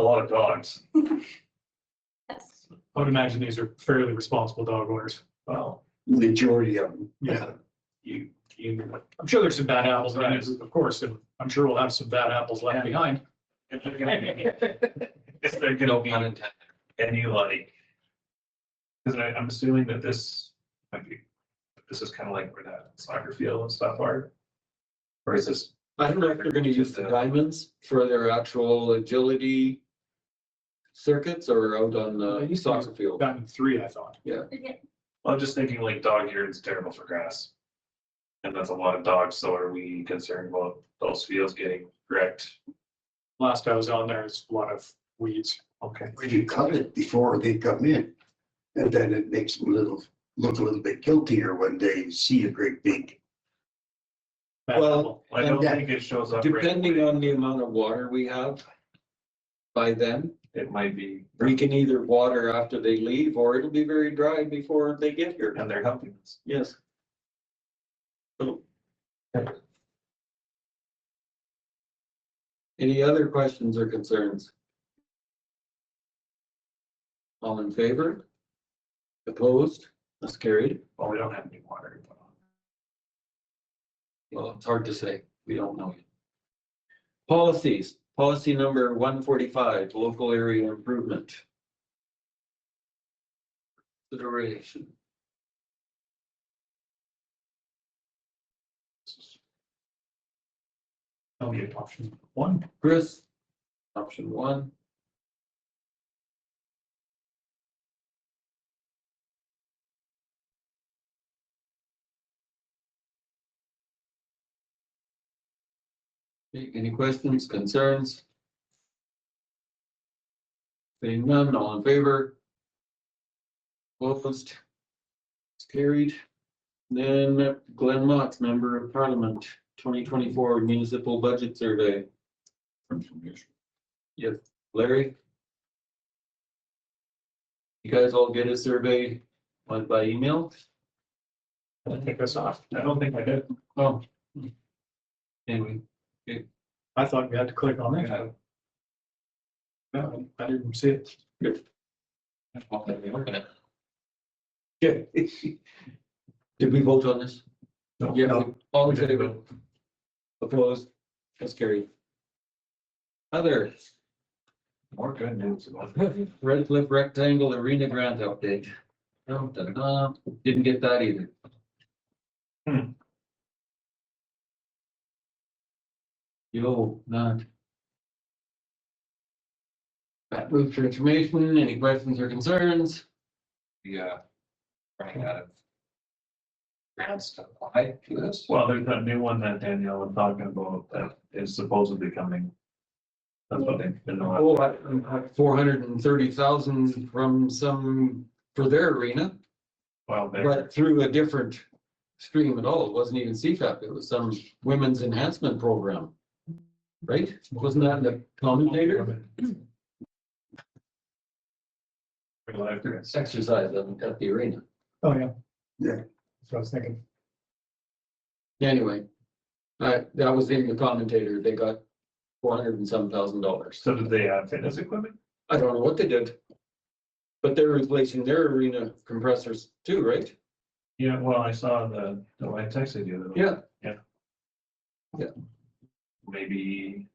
a lot of dogs. Yes. I would imagine these are fairly responsible dog owners. Well, Majority of them. yeah, you, you, I'm sure there's some bad apples, in it, of course, and I'm sure we'll have some bad apples left behind. If they're gonna be- if they're gonna be unintended, and you like. Cause I, I'm assuming that this, might be this is kind of like where that soccer field and stuff are. Or is this, I don't know if they're gonna use the diamonds for their actual agility circuits or out on They the used to use soccer field. Diamond three, I thought. I'm just thinking like dog urine is terrible for grass. And that's a lot of dogs, so are we concerned about those fields getting wrecked? Last I was on there, it's a lot of weeds. Okay. When you cut it before they come in. And then it makes them a little, look a little bit guiltier when they see a great big, Bad Well, apple. I don't And that- think it shows up. right Depending away. on the amount of water we have by then, It might be, we can either water after they leave or it'll be very dry before they get here. and they're helping us. Yes. Any other questions or concerns? All in favor? Opposed? That's carried. Well, we don't have any water to put on. Well, it's hard to say. We don't know yet. Policies, policy number one forty-five, local area improvement. Consideration. That'll be option one. Chris, option one. Okay, Any questions, concerns? Seeing none, all in favor? Opposed? It's carried. Then Glenn Mott's Member of Parliament, twenty twenty-four Municipal Budget Survey. Yes, Larry? You guys all get a survey, like by email? I'll take this off. I don't think I did. Oh. Anyway, I thought we had to click on that. No, I didn't see it. I'll let you work on it. Okay. Did we vote on this? No. Yeah, all in favor? Opposed? That's carried. Other, More good news. about- Red Cliff Rectangle Arena Grant update. No, da-da-da. Didn't get that either. Hmm. Yo, not. That roof transformation, any questions or concerns? Yeah. Running out of. Grants to apply to this. Well, there's that new one that Danielle was talking about that is supposedly coming. That's what they've been on. Oh, four hundred and thirty thousand from some, for their arena, Well, they're, but through a different stream at all. It wasn't even CFAP. It was some women's enhancement program. Right? Wasn't that in the commentator? well, after it's- Exercise at at the arena. Oh, yeah. Yeah. That's what I was thinking. Anyway, I, that was in the commentator. They got four hundred and some thousand dollars. so did they have fitness equipment? I don't know what they did. But they're replacing their arena compressors too, right? Yeah, well, I saw the, the I texted you. that Yeah, Maybe.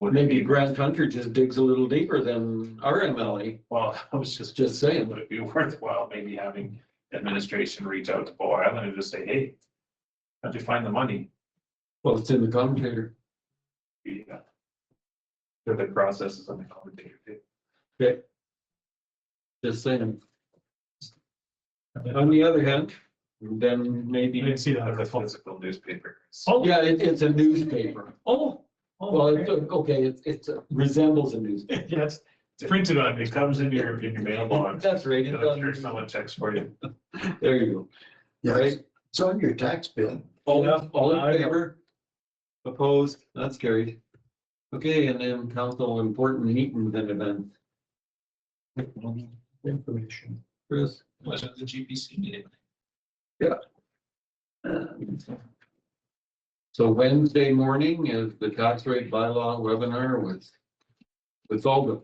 would it maybe be- Grand Country just digs a little deeper than our MLA. Well, I was just, E, Just saying, would it be worthwhile maybe having administration reach out to Bow Island and just say, hey. How'd you find the money? well, it's in the commentator. Yeah. Through the processes and the commentator. Just saying. On the other hand, then You maybe, didn't see That's a that. physical newspaper. Oh, yeah, it, it's a newspaper. oh. Well, oh, it's, okay. okay, it, it resembles a newspaper. Yeah, it's it's printed on me. It comes in your, in your mailbox. That's right. And it I'm sure someone does. checks for you. There you go. yeah, Right? it's on your tax bill. All, Yeah. all I in know. favor? Opposed? That's carried. Okay, and then council important meeting then event. Information. Chris? Was it the GPC meeting? Um, So Wednesday morning is the tax rate bylaw webinar with, with all the